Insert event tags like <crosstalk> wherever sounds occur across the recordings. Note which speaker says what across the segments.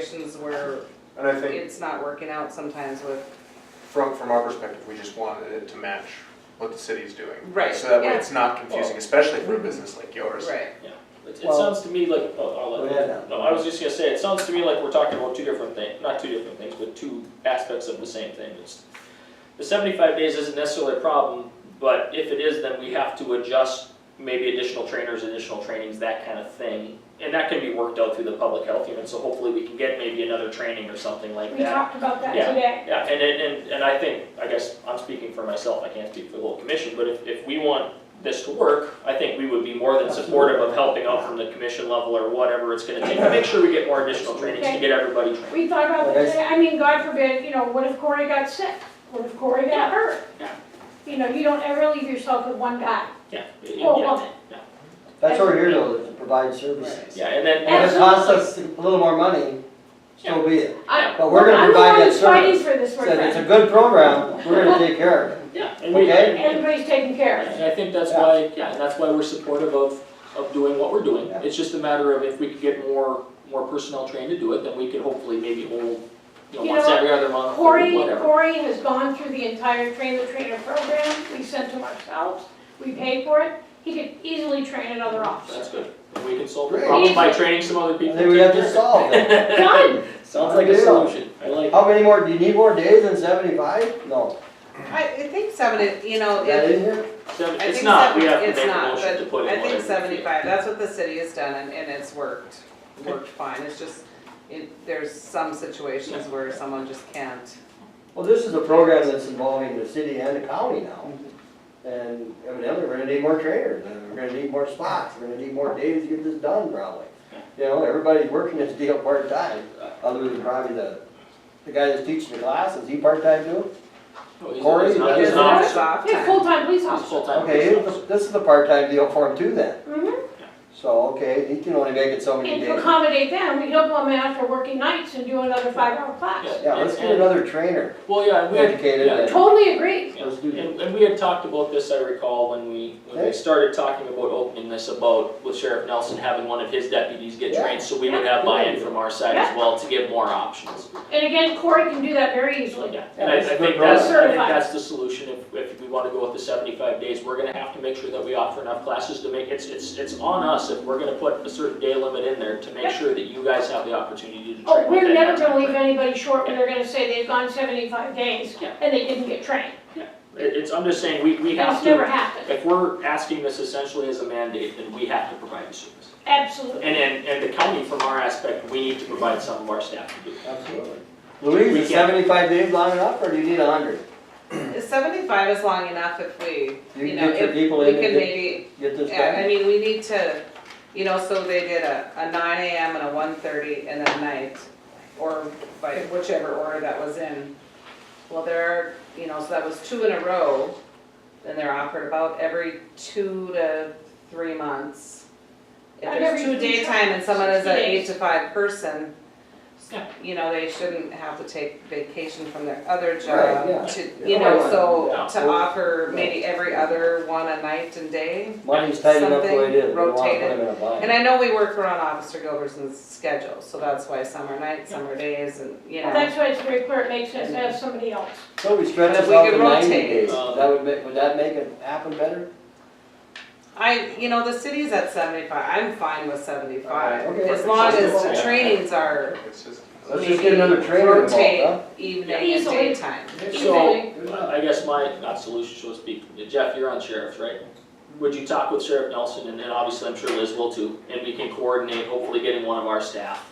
Speaker 1: situations where
Speaker 2: And I think
Speaker 1: it's not working out sometimes with,
Speaker 2: from, from our perspective, we just wanted it to match what the city's doing.
Speaker 1: Right,
Speaker 2: So that way
Speaker 1: yeah. Mm-hmm.
Speaker 2: it's not confusing,
Speaker 3: Well-
Speaker 2: especially for a business like yours.
Speaker 1: right,
Speaker 3: Yeah, it, it
Speaker 4: Well-
Speaker 3: sounds to me like, oh, I'll let
Speaker 4: Go ahead now.
Speaker 3: No, I was just gonna say, it sounds to me like we're talking about two different things, not two different things, but two aspects of the same thing. It's- The seventy-five days isn't necessarily a problem, but if it is, then we have to adjust maybe additional trainers, additional trainings, that kind of thing. And that can be worked out through the public health unit, so hopefully we can get maybe another training or something like that.
Speaker 5: We talked about that today.
Speaker 3: Yeah, and, and, and- and I think, I guess, I'm speaking for myself, I can't speak for the whole commission, but if, if we want this to work, I think we would be more than supportive of helping out from the commission level or whatever it's gonna take, to make sure we get more additional trainings to get everybody trained.
Speaker 5: We thought about
Speaker 4: Well,
Speaker 5: that today. I mean, God forbid, you know, what if Corey got sick? What if Corey got hurt?
Speaker 3: Yeah.
Speaker 5: You know, you don't ever leave yourself with one guy
Speaker 3: Yeah, Oh,
Speaker 5: or
Speaker 3: yeah,
Speaker 5: woman.
Speaker 4: That's what we're here to, is to provide services.
Speaker 3: yeah, and then,
Speaker 4: If it costs us a little more money, so be it.
Speaker 5: I-
Speaker 4: But we're gonna
Speaker 5: I'm the
Speaker 4: provide
Speaker 5: one
Speaker 4: that
Speaker 5: who's fighting for this,
Speaker 4: So
Speaker 5: my
Speaker 4: if it's a
Speaker 5: friend.
Speaker 4: good program, we're gonna take
Speaker 3: <laughs>
Speaker 4: care of it.
Speaker 3: yeah, and we,
Speaker 4: Okay.
Speaker 3: and,
Speaker 5: Everybody's taken care of.
Speaker 3: and I think that's why, yeah, and that's why we're supportive of, of doing what we're doing.
Speaker 4: Yeah.
Speaker 3: It's just a matter of if we could get more, more personnel trained to do it, then we could hopefully maybe hold, you know,
Speaker 5: You
Speaker 3: once
Speaker 5: know,
Speaker 3: every other month or
Speaker 5: Corey,
Speaker 3: whatever.
Speaker 5: Corey has gone through the entire train the trainer program. We sent him ourselves. We paid for it. He could easily train another officer.
Speaker 3: That's good. And we can solve the
Speaker 4: Great.
Speaker 3: problem by training some other people.
Speaker 4: I think we have to solve it. <laughs>
Speaker 5: Done.
Speaker 3: <laughs> Sounds like a
Speaker 4: Yeah.
Speaker 3: solution. I like.
Speaker 4: How many more, do you need more days than seventy-five? No.
Speaker 1: I, I think seventy, you know,
Speaker 4: Is that
Speaker 1: if,
Speaker 4: in here?
Speaker 3: Seven,
Speaker 1: I
Speaker 3: it's
Speaker 1: think
Speaker 3: not, we
Speaker 1: seventy,
Speaker 3: have to make
Speaker 1: it's
Speaker 3: a
Speaker 1: not,
Speaker 3: motion to
Speaker 1: but
Speaker 3: put in
Speaker 1: I think
Speaker 3: whatever we feel.
Speaker 1: seventy-five, that's what the city has done and, and it's worked,
Speaker 3: Okay.
Speaker 1: worked fine, it's just, it, there's some situations where someone just can't.
Speaker 4: Well, this is a program that's involving the city and the county now. And evidently, we're gonna need more trainers, and we're gonna need more spots, we're gonna need more days to get this done probably. You know, everybody's working this deal part-time, other than probably the, the guy that's teaching the class, is he part-time too?
Speaker 3: No, he's-
Speaker 4: Corey,
Speaker 3: he's Oh, not-
Speaker 4: that
Speaker 3: he's
Speaker 4: is-
Speaker 3: not-
Speaker 1: It's off
Speaker 5: Yeah,
Speaker 1: time.
Speaker 5: full-time police
Speaker 3: he's
Speaker 5: officer.
Speaker 3: full-time
Speaker 4: Okay,
Speaker 3: police officer.
Speaker 4: this- this is a part-time deal for him too then.
Speaker 5: Mhm.
Speaker 4: So, okay, he can only make it so many
Speaker 5: And to
Speaker 4: days.
Speaker 5: accommodate them, we don't go in after working nights and do another five-hour class.
Speaker 4: Yeah, let's get another trainer.
Speaker 3: Well, yeah, and we had,
Speaker 4: Educated
Speaker 3: yeah,
Speaker 4: and-
Speaker 5: Totally agree.
Speaker 3: yeah.
Speaker 4: Let's do that.
Speaker 3: And, and we had talked about this, I recall, when we, when
Speaker 4: Okay.
Speaker 3: we started talking about opening this about with Sheriff Nelson having one of his deputies get
Speaker 4: Yeah.
Speaker 3: trained, so we would have buy-in from our side as well to give more options.
Speaker 5: And again, Corey can do that very
Speaker 3: So,
Speaker 5: easily.
Speaker 3: yeah, and I, I
Speaker 4: Yeah, that's a
Speaker 3: think
Speaker 4: good
Speaker 3: that's, I think
Speaker 5: program.
Speaker 3: that's the solution, if, if we wanna go with the seventy-five days, we're gonna have to make sure that we offer enough classes to make, it's, it's, it's on us if we're gonna put a certain day limit in there to make sure that you guys have the opportunity to
Speaker 5: Oh,
Speaker 3: train
Speaker 5: we're
Speaker 3: within that
Speaker 5: never gonna leave
Speaker 3: timeframe.
Speaker 5: anybody short when they're gonna say they've gone seventy-five days
Speaker 3: Yeah.
Speaker 5: and they didn't get trained.
Speaker 3: It, it's, I'm just saying, we, we have
Speaker 5: That's never
Speaker 3: to,
Speaker 5: happened.
Speaker 3: if we're asking this essentially as a mandate, then we have to provide the service.
Speaker 5: Absolutely.
Speaker 3: And, and, and the county from our aspect, we need to provide some of our staff to do. it.
Speaker 4: Absolutely. Louise,
Speaker 3: We
Speaker 4: is
Speaker 3: can't-
Speaker 4: seventy-five days long enough, or do you need a hundred?
Speaker 1: Seventy-five is long enough if we,
Speaker 4: You
Speaker 1: you
Speaker 4: can
Speaker 1: know,
Speaker 4: get your
Speaker 1: if,
Speaker 4: people
Speaker 1: we
Speaker 4: in and
Speaker 1: can
Speaker 4: get,
Speaker 1: maybe
Speaker 4: get this
Speaker 1: Yeah, I
Speaker 4: done.
Speaker 1: mean, we need to, you know, so they did a, a nine AM and a one thirty and a night, or by whichever order that was in. Well, there are, you know, so that was two in a row, then they're offered about every two to three months. If
Speaker 5: Not
Speaker 1: there's
Speaker 5: every
Speaker 1: two
Speaker 5: three
Speaker 1: daytime and someone is an
Speaker 5: Sixty
Speaker 1: eight
Speaker 5: days.
Speaker 1: to five person,
Speaker 3: Yeah.
Speaker 1: you know, they shouldn't have to take vacation from their other
Speaker 4: Right, yeah.
Speaker 1: job to, you
Speaker 4: Yeah.
Speaker 1: know, so
Speaker 3: Yeah.
Speaker 1: to offer maybe every other one a night and day.
Speaker 4: Money's tight enough the way it is, we don't wanna put
Speaker 1: Something
Speaker 4: them in a bind.
Speaker 1: And I know we work around Officer Gilbertson's schedule, so that's why summer nights, summer days, and, you
Speaker 5: Well,
Speaker 1: know.
Speaker 5: that's why it's very clear, it makes sense to have somebody else.
Speaker 4: So we stretch
Speaker 1: But
Speaker 4: this
Speaker 1: we
Speaker 4: out
Speaker 1: could
Speaker 4: to ninety
Speaker 1: rotate.
Speaker 4: days,
Speaker 3: Um,
Speaker 4: that would make, would that make it happen better?
Speaker 1: I, you know, the city's at seventy-five, I'm fine with seventy-five,
Speaker 4: Okay.
Speaker 1: as long as the
Speaker 3: Yeah.
Speaker 1: trainings are
Speaker 2: It's just-
Speaker 4: Let's just get another
Speaker 1: maybe
Speaker 4: trainer involved,
Speaker 1: rotate
Speaker 4: huh?
Speaker 1: Evening and
Speaker 5: Easily.
Speaker 1: daytime.
Speaker 5: Easily.
Speaker 4: Good
Speaker 3: So,
Speaker 4: enough.
Speaker 3: I guess my, not solution, so to speak, Jeff, you're on sheriff's, right? Would you talk with Sheriff Nelson, and then obviously I'm sure Liz will too, and we can coordinate hopefully getting one of our staff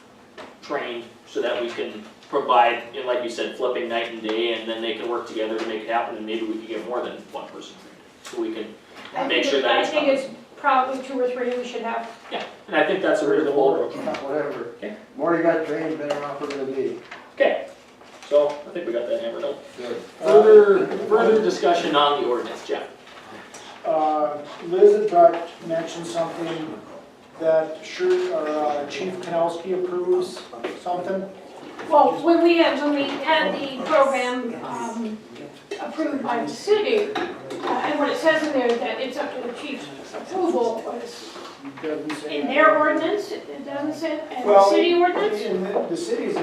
Speaker 3: trained so that we can provide, and like you said, flipping night and day, and then they can work together to make it happen, and maybe we can get more than one person trained. So we can,
Speaker 5: I
Speaker 3: Make
Speaker 5: think
Speaker 3: sure
Speaker 5: it-
Speaker 3: that it's
Speaker 5: I think it's probably two or three we should have.
Speaker 3: and I think that's a reasonable approach.
Speaker 4: Whatever.
Speaker 3: Okay.
Speaker 4: More you got trained, better off we're gonna be.
Speaker 3: Okay, so I think we got that hammered out.
Speaker 4: Good.
Speaker 3: Further, further discussion on the ordinance, Jeff.
Speaker 6: Uh, Liz had brought, mentioned something that sure, or uh, Chief Kanowski approves something.
Speaker 5: Well, when we had, when we had the program um, approved by the city, uh, and what it says in there that it's up to the chief's approval was
Speaker 6: Doesn't say
Speaker 5: in
Speaker 6: that.
Speaker 5: their ordinance, it doesn't say, and the
Speaker 6: Well,
Speaker 5: city ordinance?
Speaker 6: In the, the city's